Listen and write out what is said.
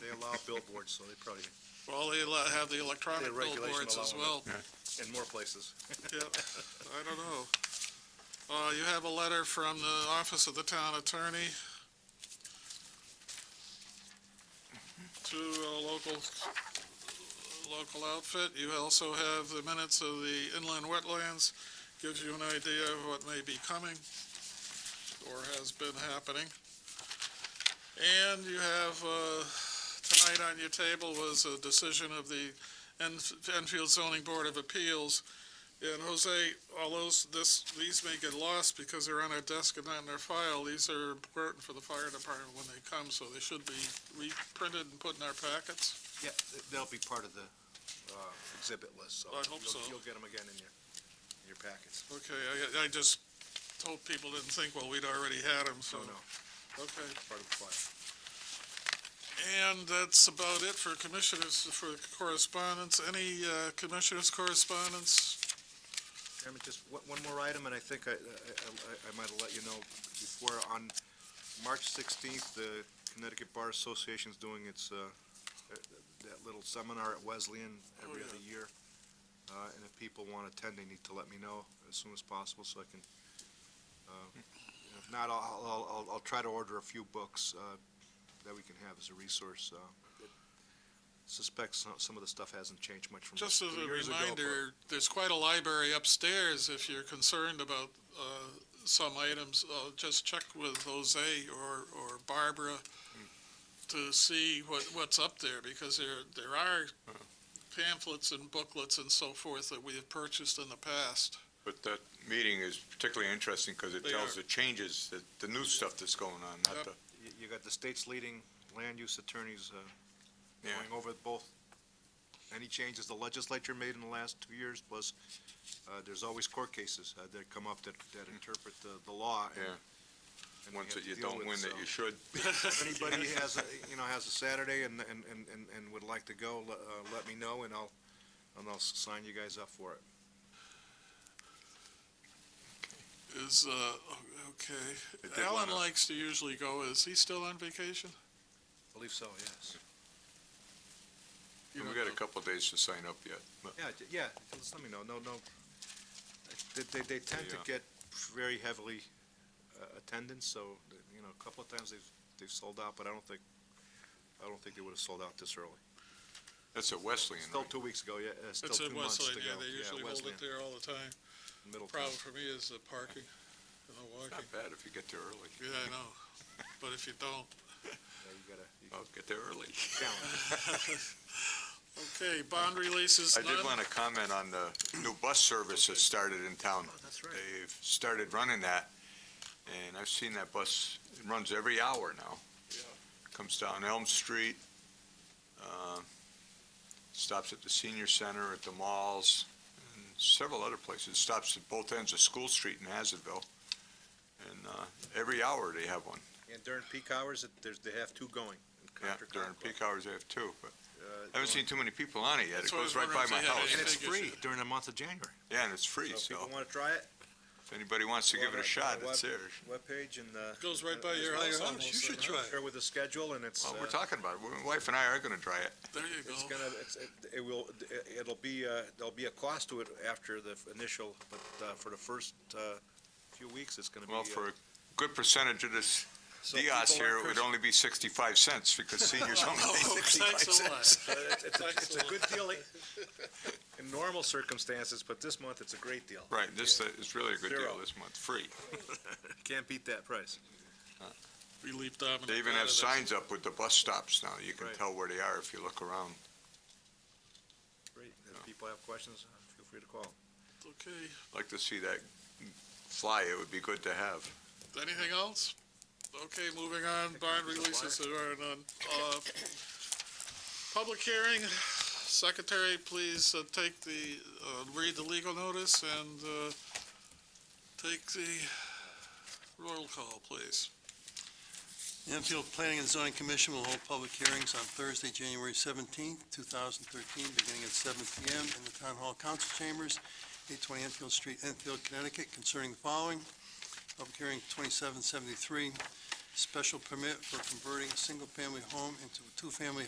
They allow billboards, so they probably, Well, they allow- have the electronic The regulation billboards as well. allowing in more places. Yep, I don't know. Uh, you have a letter from the Office of the Town Attorney to a local, local outfit. You also have the minutes of the inland wetlands, gives you an idea of what may be coming or has been happening. And you have, uh, tonight on your table was a decision of the Enf- Enfield Zoning Board of Appeals and Jose, all those, this, these may get lost because they're on our desk and not in our file. These are important for the fire department when they come, so they should be reprinted and put in our packets. Yeah, they'll be part of the uh, exhibit list, so. I hope you'll- so. You'll get them again in your, in your packets. Okay, I, I just told people didn't think, well, we'd already had them, so. So, Oh, no, Okay, part of the file. and that's about it for commissioners, for correspondence. Any, uh, commissioners' correspondence? Chairman, just one one more item, and I think I, I- I- I might have let you know before. On March 16th, the Connecticut Bar Association's doing its, uh, that little seminar at Wesleyan every Oh, yeah. other year. Uh, And if people want to attend, they need to let me know as soon as possible so I can, uh, if not, I'll, I'll- I'll, I'll try to order a few books uh, that we can have as a resource. uh, Suspect some, some of the stuff hasn't changed much from Just as three a years ago, but- reminder, there's quite a library upstairs if you're concerned about uh, some items. uh, Just check with Jose or or Barbara to see what what's up there, because there there are pamphlets and booklets and so forth that we have purchased in the past. But that meeting is particularly interesting because it They tells are. the changes, that the new stuff that's going on, Yep. not the, You- You got the state's leading land use attorneys uh, Yeah. going over both, any changes the legislature made in the last two years, plus uh, there's always court cases uh, that come up that that interpret the the law. and- Yeah. and we have ones that to you deal don't with, win that so. you should. If anybody has, a- you know, has a Saturday and and and and- and would like to go, le- uh, let me know, and I'll, and I'll s- sign you guys up for it. Is, uh, okay, I did Alan wanna- likes to usually go, is he still on vacation? Believe so, yes. You We don't got know. a couple of days to sign up yet. but- Yeah, j- yeah, just let me know, no, no. They, they, they tend to Yeah. get very heavily uh, attendance, so, you know, a couple of times they've, they've sold out, but I don't think, I don't think they would have sold out this early. That's at Wesleyan, Still right? two weeks ago, yeah, uh, still It's two in months to go. Wesleyan, yeah, they usually hold Wesleyan, it there all the time. Middletown. Problem for me is the parking and the walking. Not bad if you get there early. Yeah, I know, but if you don't. Yeah, you gotta, you I'll get there early. challenge. Okay, bond releases I did none. want to comment on the new bus service that started in Oh, town. That's They've started running that, and I've seen that bus, it runs every hour now. Yeah. Comes down Elm Street, uh, stops at the senior center, at the malls, and several other places. Stops at both ends of School Street in Hazardville. And uh, every hour they have one. And during peak hours, it- there's, they have two going. Yeah, Contra during Contra. peak hours they have two, but Uh, I haven't seen too many people on it yet. It That's why I goes was right wondering by if my they had house. And it's Figures, free yeah. during the month of January. Yeah, and it's free, So if so people wanna try it. if anybody wants to go give on it our- a shot, our it's web- there. Webpage and, uh. Goes right by and- your and house it's almost, also- you should try it. Here with a schedule and it's. Well, uh, we're talking about it. My wife and I are gonna try it. There you It's go. gonna, it's, it- it will, it'll be, uh, there'll be a cost to it after the initial, but, uh, for the first, uh, few weeks, it's gonna be. uh, Well, for a good percentage of this Diaz Dios here, it would only be sixty-five cents because seniors only Oh, pay sixty-five Thanks a cents. lot. It's, it's a- it's a good deal eh, in normal circumstances, but this month it's a great deal. Right, this is really a good deal Zero. this month, free. Can't beat that price. We leave Dominic. They even out have of this. signs up with the bus stops now. You can Right. tell where they are if you look around. Great. If people have questions, uh, feel free to call. Okay, Like to see that fly, it would be good to have. anything else? Okay, moving on, bond releases there are none. Uh, Public hearing, secretary, please uh, take the, uh, read the legal notice and uh, take the roll call, please. The Enfield Planning and Zoning Commission will hold public hearings on Thursday, January seventeenth, two thousand thirteen, beginning at seven P M. in the Town Hall Council Chambers, eight twenty Enfield Street, Enfield, Connecticut, concerning the following. Public hearing twenty-seven seventy-three, special permit for converting a single-family home into a two-family